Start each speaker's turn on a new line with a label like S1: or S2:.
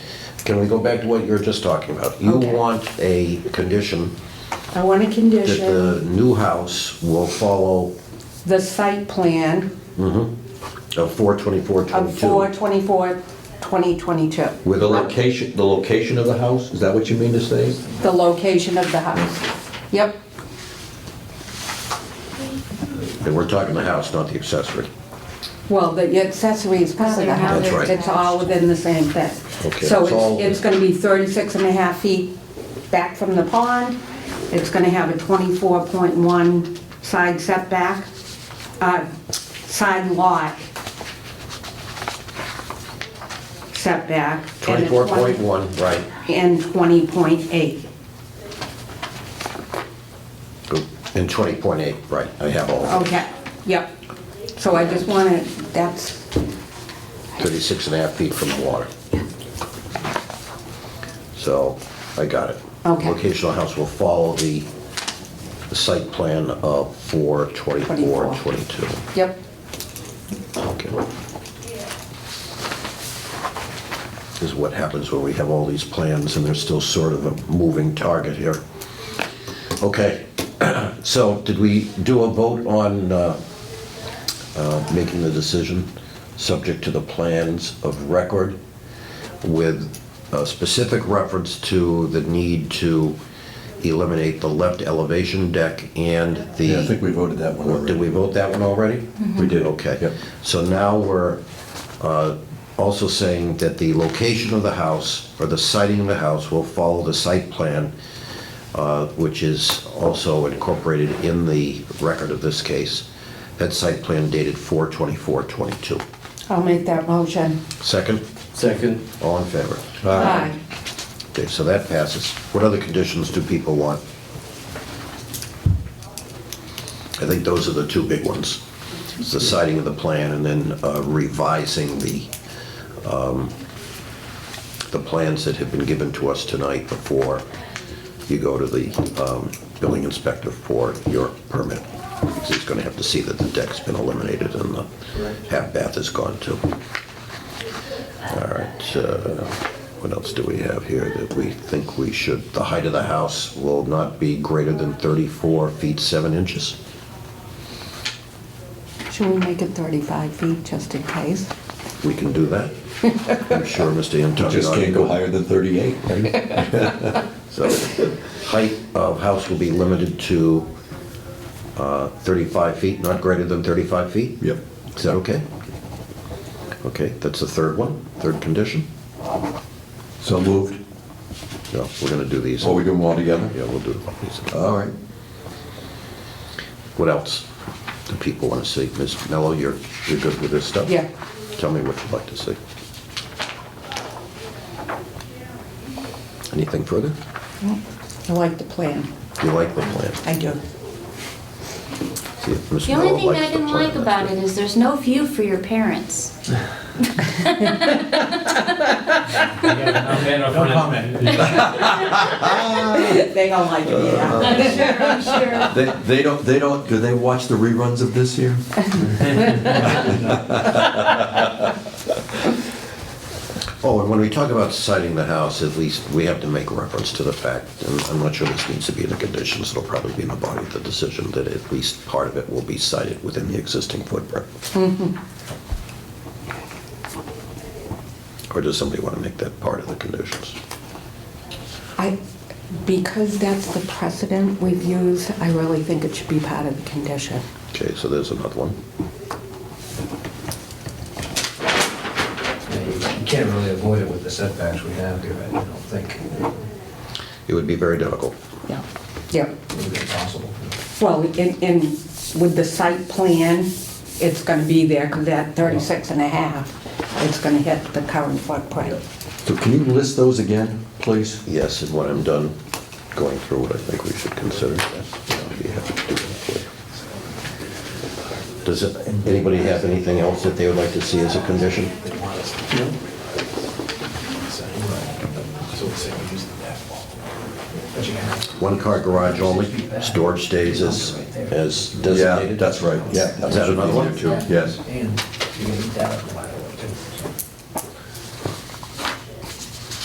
S1: Can we go back to what you were just talking about? You
S2: Okay.
S1: want a condition
S2: I want a
S1: that the
S2: condition,
S1: new house will follow
S2: the site plan
S1: a four twenty-four
S2: of
S1: twenty-two.
S2: 4/24/2022,
S1: With the location, the location of the house, is that what you mean to say?
S2: the location of the house. Yep,
S1: And we're talking the house, not the accessory.
S2: well, the accessory is part of the
S3: They're how
S2: house.
S1: they're That's right.
S2: It's all within the same thing.
S1: Okay,
S2: So
S1: it's all-
S2: it's, it's gonna be 36 and a half feet back from the pond. It's gonna have a 24.1 side setback, uh, side lot setback. and a 20
S1: Twenty-four point one, right.
S2: and 20.8.
S1: And twenty point eight, right, I have all of
S2: Okay, yep. So I just wanted, that's,
S1: it, thirty-six and a half feet from the water. So, I got it.
S2: Okay.
S1: Location of the house will follow the, the site plan of four twenty-four
S2: 24.
S1: twenty-two.
S2: yep,
S1: Okay. This is what happens when we have all these plans and there's still sort of a moving target here. Okay, so did we do a vote on uh, uh, making the decision, subject to the plans of record with a specific reference to the need to eliminate the left elevation deck and the...
S4: Yeah, I think we voted that one
S1: Did we
S4: already.
S1: vote that one already?
S4: We did.
S1: Okay.
S4: Yep.
S1: So now we're uh, also saying that the location of the house, or the siting of the house, will follow the site plan, uh, which is also incorporated in the record of this case. That site plan dated 4/24/22.
S2: I'll make that motion.
S1: Second,
S5: Second.
S1: all in favor?
S2: Aye.
S1: Okay, so that passes. What other conditions do people want? I think those are the two big ones. It's the citing of the plan and then uh, revising the, um, the plans that have been given to us tonight before you go to the um, building inspector for your permit. Because he's gonna have to see that the deck's been eliminated and the half bath is gone too. All right, uh, what else do we have here that we think we should, the height of the house will not be greater than 34 feet 7 inches?
S2: Should we make it 35 feet just in case?
S1: We can do that. I'm sure Mr.
S4: We
S1: Antoniadi...
S4: Just can't go higher than 38, right?
S1: So, height of house will be limited to uh, 35 feet, not greater than 35 feet?
S4: Yep.
S1: Is that okay? Okay, that's the third one, third condition?
S4: So moved.
S1: No, we're gonna do these.
S4: So we Uh, do them all together?
S1: Yeah, we'll do these.
S4: All right.
S1: What else do people want to see? Ms. Mello, you're, you're good with this stuff?
S2: Yeah.
S1: Tell me what you'd like to see. Anything further?
S2: I like the plan.
S1: You like the plan?
S2: I do.
S1: See if Ms.
S3: The only
S1: Mello
S3: thing that
S1: likes
S3: I
S1: the
S3: didn't
S1: plan.
S3: like about it is there's no view for your parents.
S5: No comment.
S2: They don't like it, yeah.
S3: I'm sure, I'm sure.
S4: They, they don't, they don't, do they watch the reruns of this here?
S1: Oh, and when we talk about citing the house, at least we have to make reference to the fact, and I'm not sure this needs to be in the conditions, it'll probably be in the body of the decision, that at least part of it will be cited within the existing footprint. Or does somebody want to make that part of the conditions?
S2: I, because that's the precedent we've used, I really think it should be part of the condition.
S1: Okay, so there's another one.
S5: You can't really avoid it with the setbacks we have here, I don't think.
S1: It would be very difficult.
S2: Yeah. Yep.
S5: It's impossible.
S2: Well, in, in, with the site plan, it's gonna be there, because that 36 and a half, it's gonna hit the current footprint.
S4: So can you list those again, please?
S1: Yes, and when I'm done going through what I think we should consider, I'll be happy to do that for you. Does it- anybody have anything else that they would like to see as a condition?
S5: So let's say we use the But you have.
S1: One-car garage only, storage stays as, as
S4: Yeah,
S1: designated?
S4: that's right, yeah.
S1: Is that another one?
S4: Yes.
S5: And you can eat that up.